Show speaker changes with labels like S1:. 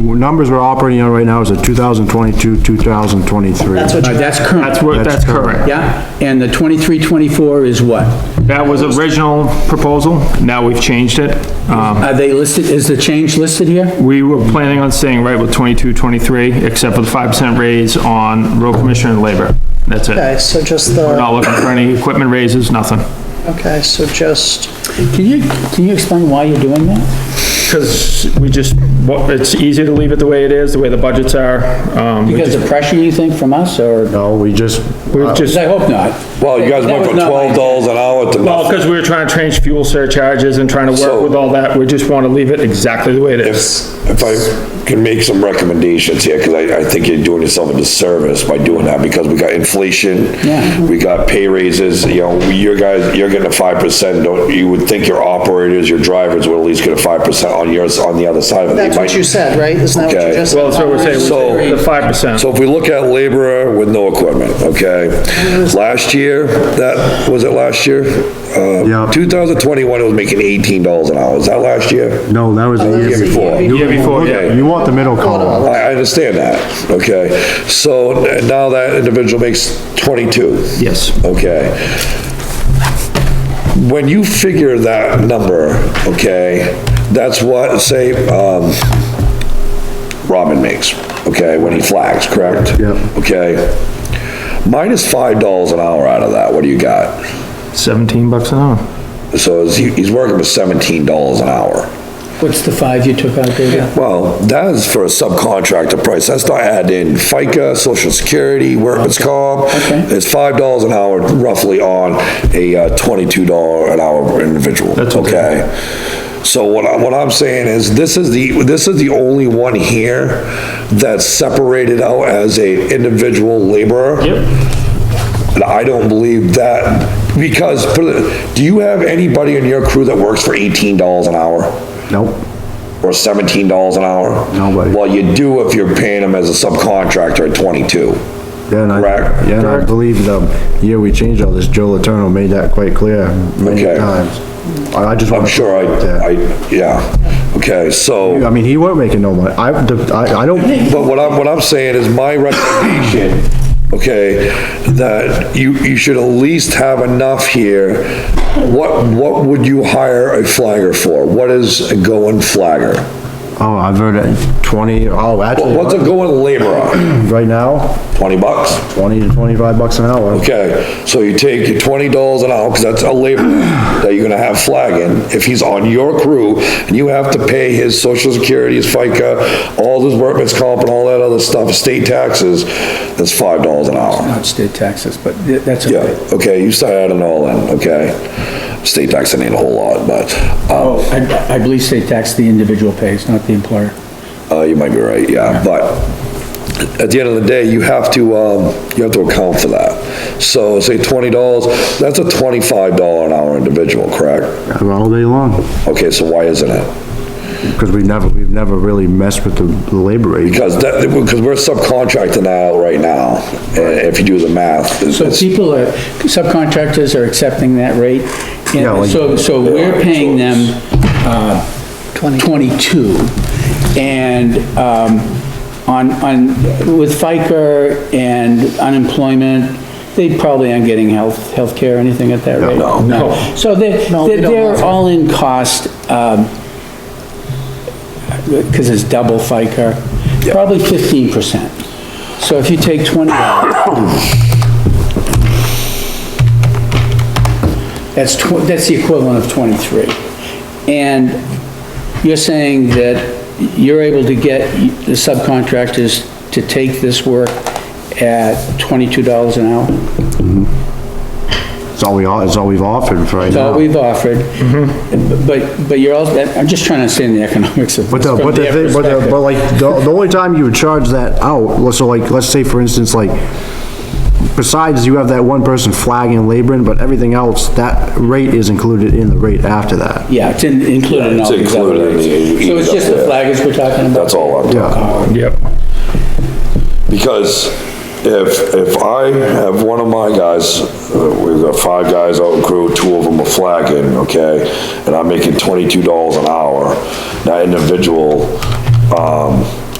S1: numbers we're operating on right now is a 2022, 2023.
S2: That's what
S3: All
S2: you
S3: right, Uh, that's
S4: That's
S3: current,
S4: what,
S1: That's
S4: that's
S1: correct.
S4: correct.
S3: yeah? And the 23, 24 is what?
S4: That was original proposal, now we've changed it. Um,
S3: Are they listed, is the change listed here?
S4: we were planning on staying right with 22, 23, except for the 5% raise on road commissioner and labor. That's it.
S2: Okay, so just
S4: We're
S2: the,
S4: not looking for any equipment raises, nothing.
S2: okay, so just,
S3: Can you, can you explain why you're doing that?
S4: Because we just, what- it's easier to leave it the way it is, the way the budgets are. Um, we
S3: Because
S4: just-
S3: of pressure, you think, from us, or?
S1: No, we just,
S4: we're just,
S3: Because I hope not.
S5: Well, you guys
S3: That
S5: went
S3: was
S5: from
S3: not my
S5: twelve dollars an hour to
S4: well,
S5: nothing.
S4: because we were trying to change fuel surcharges and trying to work
S5: So-
S4: with all that, we just want to leave it exactly the way it is.
S5: If if I can make some recommendations here, because I, I think you're doing yourself a disservice by doing that, because we got inflation.
S3: Yeah.
S5: We got pay raises, you know, your guys, you're getting a five percent, don't, you would think your operators, your drivers would at least get a five percent on yours, on the other side of it. They
S2: that's what
S5: might-
S2: you said, right? Isn't that what you
S5: Okay.
S2: just?
S4: Well, that's what we're
S5: So-
S4: saying, the 5%.
S5: So if we look at laborer with no equipment, okay? Last year, that, was it last year? Uh,
S1: Yeah.
S5: Two thousand twenty-one, it was making eighteen dollars an hour. Is that last year?
S1: no, that was the
S5: The
S1: year
S5: year
S1: before.
S5: before.
S4: Year before, yeah.
S1: You want the middle column.
S5: I, I understand that, okay? So n- now that individual makes 22,
S4: Yes.
S5: okay? When you figure that number, okay, that's what, say, um, Robin makes, okay, when he flags, correct?
S1: Yep.
S5: Okay? Minus $5 an hour out of that, what do you got?
S4: 17 bucks an hour.
S5: So he's, he's working with $17 an hour.
S3: What's the five you took out, David?
S5: Well, that is for a subcontractor price. That's not adding in FICA, social security, workman's comp.
S3: Okay.
S5: It's five dollars an hour roughly on a uh, twenty-two dollar an hour individual,
S4: That's okay.
S5: okay? So what I, what I'm saying is, this is the, this is the only one here that's separated out as a individual laborer. And I don't believe that, because, put it- do you have anybody in your crew that works for eighteen dollars an hour?
S1: Nope.
S5: or seventeen dollars an hour?
S1: Nobody.
S5: Well, you do if you're paying them as a subcontractor at twenty-two.
S1: Yeah, and I,
S5: Correct.
S1: yeah, and I believe the year we changed all this, Joe Letourneau made that quite clear many
S5: Okay.
S1: times. I I just want
S5: I'm
S1: to.
S5: sure I, I, yeah, okay,
S1: I
S5: so,
S1: mean, he weren't making no money. I, the- I, I don't,
S5: but what I'm, what I'm saying is my recommendation, okay, that you, you should at least have enough here. What, what would you hire a flagger for? What is a going flagger?
S1: oh, I've heard it, twenty, oh, actually,
S5: What's a going laborer?
S1: right now,
S5: Twenty bucks?
S1: twenty to twenty-five bucks an hour.
S5: Okay, so you take your twenty dollars an hour, because that's a labor that you're gonna have flagging, if he's on your crew, and you have to pay his social security, his FICA, all his workman's comp and all that other stuff, state taxes, that's five dollars an hour.
S3: Not state taxes, but th- that's
S5: Yeah,
S3: okay.
S5: okay, you start adding all in, okay? State tax ain't a whole lot, but, um,
S3: Oh, I, I believe state tax the individual pays, not the employer.
S5: uh, you might be right, yeah, but at the end of the day, you have to, um, you have to account for that. So say twenty dollars, that's a twenty-five dollar an hour individual, correct?
S1: All day long,
S5: Okay, so why isn't it?
S1: because we've never, we've never really messed with the the labor rate.
S5: Because that, because we're subcontracting that out right now, and if you do the math, it's,
S3: So
S5: it's-
S3: people are, subcontractors are accepting that rate,
S1: Yeah,
S3: and
S1: like-
S3: so, so we're paying them, uh, twenty-two, and, um, on, on, with FICA and unemployment, they probably aren't getting health, healthcare, or anything at that rate.
S5: no,
S3: No. So they're,
S2: No, we
S3: they're-
S2: don't have
S3: they're
S2: that.
S3: all-in cost, um, because it's double FICA, probably fifteen percent. So if you take twenty That's tw, that's the equivalent of twenty-three. And you're saying that you're able to get the subcontractors to take this work at twenty-two dollars an hour?
S1: It's all we, all. it's all we've offered for right
S3: That's all
S1: now.
S3: we've offered. But, but you're also, I'm just trying to understand the economics of
S1: Mm-hmm. But
S3: this
S1: the,
S3: from
S1: but the,
S3: their
S1: thing- but the,
S3: perspective.
S1: but like, the, the only time you would charge that out, let's- so like, let's say for instance, like, besides you have that one person flagging and laboring, but everything else, that rate is included in the rate after that.
S3: Yeah, it's in- included in
S5: It's
S3: all these other
S5: included in
S3: rates.
S5: the-
S3: So it's just the flaggers we're talking about?
S5: that's all I'm,
S1: Yeah,
S4: Yep.
S5: because if, if I have one of my guys, uh, we've got five guys out in crew, two of them are flagging, okay? And I'm making twenty-two dollars an hour, that individual, um,